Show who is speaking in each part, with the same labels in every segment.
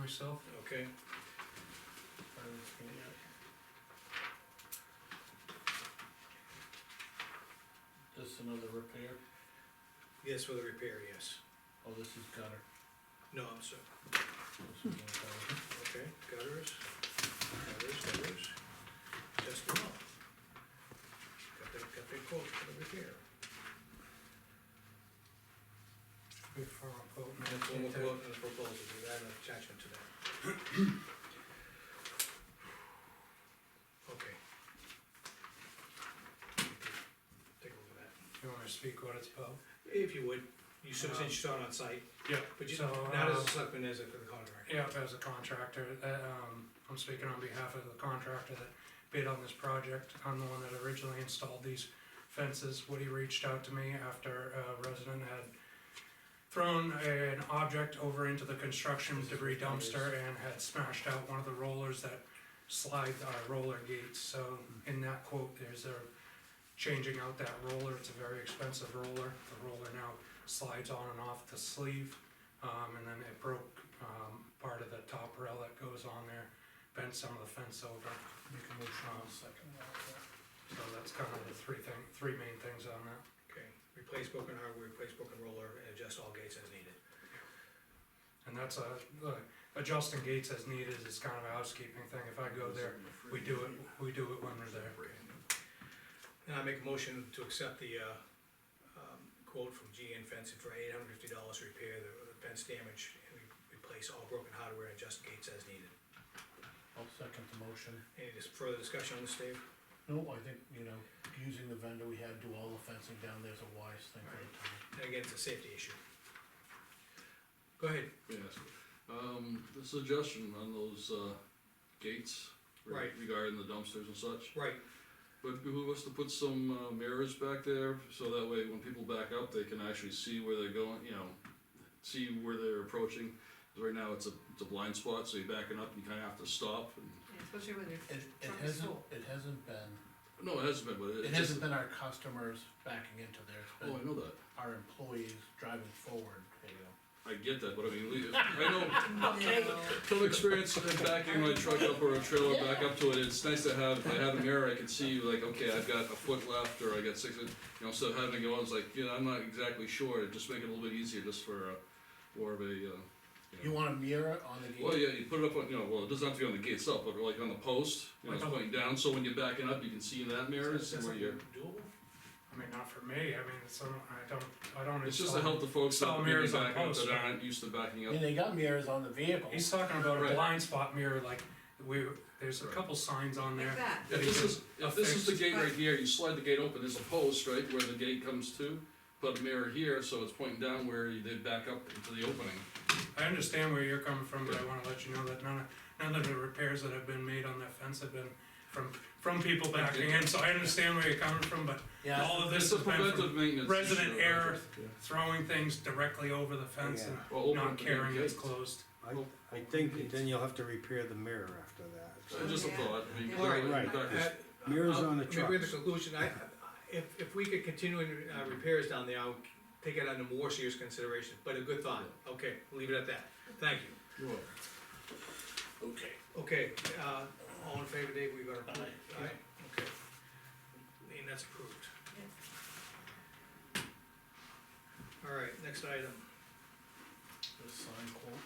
Speaker 1: myself.
Speaker 2: okay?
Speaker 1: Finance committee.
Speaker 3: This another repair?
Speaker 2: Yes, for the repair, yes.
Speaker 3: Oh, this is gutter.
Speaker 2: No, I'm sorry,
Speaker 3: This is gutter.
Speaker 2: okay, gutters, gutters, gutters, just them all. Got their, got their quote for the repair.
Speaker 1: Good for a quote.
Speaker 2: And that's one we'll go out in the proposal, we add an attachment to that. Okay. Take a look at that.
Speaker 1: You wanna speak what it's about?
Speaker 2: If you would, you so
Speaker 1: Um,
Speaker 2: since you saw it on site,
Speaker 1: Yeah.
Speaker 2: but you,
Speaker 1: So,
Speaker 2: not as
Speaker 1: uh,
Speaker 2: a selectman, as a contractor.
Speaker 1: Yeah, as a contractor, that, um, I'm speaking on behalf of the contractor that bid on this project. I'm the one that originally installed these fences. Woody reached out to me after a resident had thrown an object over into the construction debris dumpster and had smashed out one of the rollers that slide our roller gates. So in that quote, there's a changing out that roller. It's a very expensive roller. The roller now slides on and off the sleeve. Um, and then it broke, um, part of the top rail that goes on there, bent some of the fence over.
Speaker 3: Make a motion on second. one.
Speaker 1: So that's kind of the three thing, three main things on that.
Speaker 2: Okay, replace broken hardware, replace broken roller, and adjust all gates as needed.
Speaker 1: And that's a, the adjusting gates as needed is kind of a housekeeping thing. If I go there, we do it, we do it when we're there.
Speaker 2: Now I make a motion to accept the, uh, um, quote from GN Fencing for eight hundred fifty dollars to repair the the fence damage and re- replace all broken hardware and adjust gates as needed.
Speaker 3: I'll second the motion.
Speaker 2: Any dis- further discussion on this, Dave?
Speaker 3: No, I think, you know, using the vendor we had do all the fencing down there's a wise thing for the town.
Speaker 2: And again, it's a safety issue. Go ahead,
Speaker 4: Yes, um, the suggestion on those, uh, gates. re-
Speaker 2: Right.
Speaker 4: Regarding the dumpsters and such,
Speaker 2: right,
Speaker 4: but who was to put some uh, mirrors back there, so that way when people back up, they can actually see where they're going, you know, see where they're approaching. 'Cause right now, it's a, it's a blind spot, so you're backing up, and you kinda have to stop, and,
Speaker 5: Yeah, Especially when they're
Speaker 3: It, it
Speaker 5: Truck is
Speaker 3: hasn't,
Speaker 5: full.
Speaker 3: it hasn't been,
Speaker 4: no, it hasn't been, but it.
Speaker 3: it
Speaker 4: just-
Speaker 3: hasn't been our customers backing into there, it's
Speaker 4: Oh, I
Speaker 3: been
Speaker 4: know that,
Speaker 3: our employees driving forward, you know.
Speaker 4: I get that, but I mean, we- I know,
Speaker 5: No.
Speaker 4: Some experience in backing my truck up or a trailer back up to it, it's nice to have, if I have a mirror, I can see like, okay, I've got a foot left, or I got six, you know, so having to go, I was like, you know, I'm not exactly sure, It'd just make it a little bit easier just for, uh, more of a, uh,
Speaker 3: You want a mirror on the
Speaker 4: well,
Speaker 3: gate?
Speaker 4: yeah, you put it up on, you know, well, it doesn't have to be on the gate itself, but like on the post, you know, it's pointing down, so when you're backing up, you can see in that mirror, and
Speaker 2: is
Speaker 4: see
Speaker 2: that
Speaker 4: where
Speaker 2: something
Speaker 4: you're.
Speaker 2: doable?
Speaker 1: I mean, not for me. I mean, it's, some- I don't, I don't.
Speaker 4: It's just to
Speaker 1: install-
Speaker 4: help the folks that
Speaker 1: Install
Speaker 4: are
Speaker 1: mirrors on
Speaker 4: backing up
Speaker 1: posts,
Speaker 4: that
Speaker 1: right.
Speaker 4: aren't used to backing up,
Speaker 3: And they got mirrors on the vehicle.
Speaker 1: He's talking about a
Speaker 4: Right.
Speaker 1: blind spot mirror, like, we, there's a
Speaker 4: Right.
Speaker 1: couple signs on there.
Speaker 5: Like that,
Speaker 4: If this is, if this is the gate right here, you slide the gate open, there's a post, right, where the gate comes to, put a mirror here, so it's pointing down where they back up into the opening.
Speaker 1: I understand where you're coming from, but I wanna let you know that none of, none of the repairs that have been made on that fence have been from, from people backing in, so I understand where you're coming from, but
Speaker 3: Yeah,
Speaker 1: all of
Speaker 4: It's
Speaker 1: this
Speaker 4: a
Speaker 1: has been from
Speaker 4: preventive maintenance.
Speaker 1: resident
Speaker 4: issue, I
Speaker 1: error.
Speaker 4: guess, yeah.
Speaker 1: throwing things directly over the fence and
Speaker 4: Or open
Speaker 1: not
Speaker 4: the damn
Speaker 1: caring it's
Speaker 4: gate.
Speaker 1: closed.
Speaker 6: I think then you'll have to repair the mirror after that.
Speaker 4: So Just a
Speaker 5: Yeah.
Speaker 4: thought, I mean,
Speaker 5: Yeah.
Speaker 4: clearly,
Speaker 6: Right.
Speaker 4: doctors-
Speaker 2: Uh,
Speaker 6: Mirrors
Speaker 2: uh,
Speaker 6: on the
Speaker 2: maybe we have
Speaker 6: trucks.
Speaker 2: a conclusion, I, I- if, if we could continue in, uh, repairs down there, I'll take it under more serious consideration, but a good thought, okay, leave it at that, thank you.
Speaker 4: You're welcome.
Speaker 3: okay.
Speaker 2: Okay, uh, all in favor, Dave, we got approved,
Speaker 3: Aye.
Speaker 2: aye, okay. And that's approved.
Speaker 5: Yes.
Speaker 2: All right, next item,
Speaker 3: The sign quote.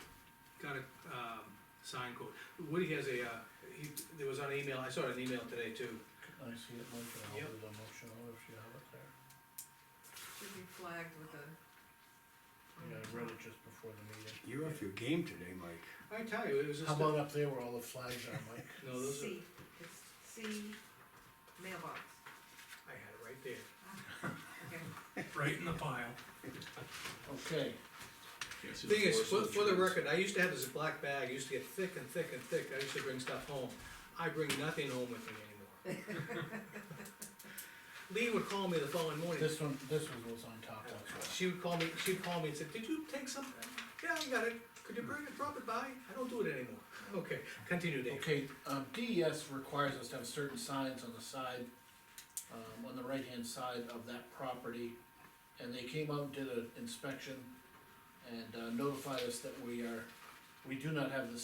Speaker 2: got a, um, sign code, Woody has a, uh, he, there was on email, I saw an email today too,
Speaker 3: Can I see it, Mike,
Speaker 2: Yep.
Speaker 3: and I'll do the motion on it if you have it there.
Speaker 5: should be flagged with
Speaker 3: Yeah,
Speaker 5: a.
Speaker 2: Mm-hmm.
Speaker 3: I read it just before the meeting.
Speaker 6: You're off your game today, Mike.
Speaker 2: I tell you, it was just.
Speaker 3: How
Speaker 2: a-
Speaker 3: about up there where all the flags are, Mike?
Speaker 2: No, those are,
Speaker 5: C, it's C mailbox,
Speaker 2: I had it right there.
Speaker 5: okay.
Speaker 1: Right in the pile.
Speaker 3: Okay,
Speaker 4: Can't see the
Speaker 2: Thing is,
Speaker 4: forest
Speaker 2: for,
Speaker 4: of
Speaker 2: for the
Speaker 4: trees.
Speaker 2: record, I used to have this black bag, it used to get thick and thick and thick, I used to bring stuff home. I bring nothing home with me anymore. Lee would call me the following morning,
Speaker 3: this one, this one was on top, that's why.
Speaker 2: she would call me, she'd call me and said, did you take something? Yeah, I got it, could you bring it, drop it by? I don't do it anymore. Okay, continue Dave.
Speaker 3: Okay, um, DES requires us to have certain signs on the side, um, on the right-hand side of that property. And they came out and did an inspection and uh, notified us that we are, we do not have the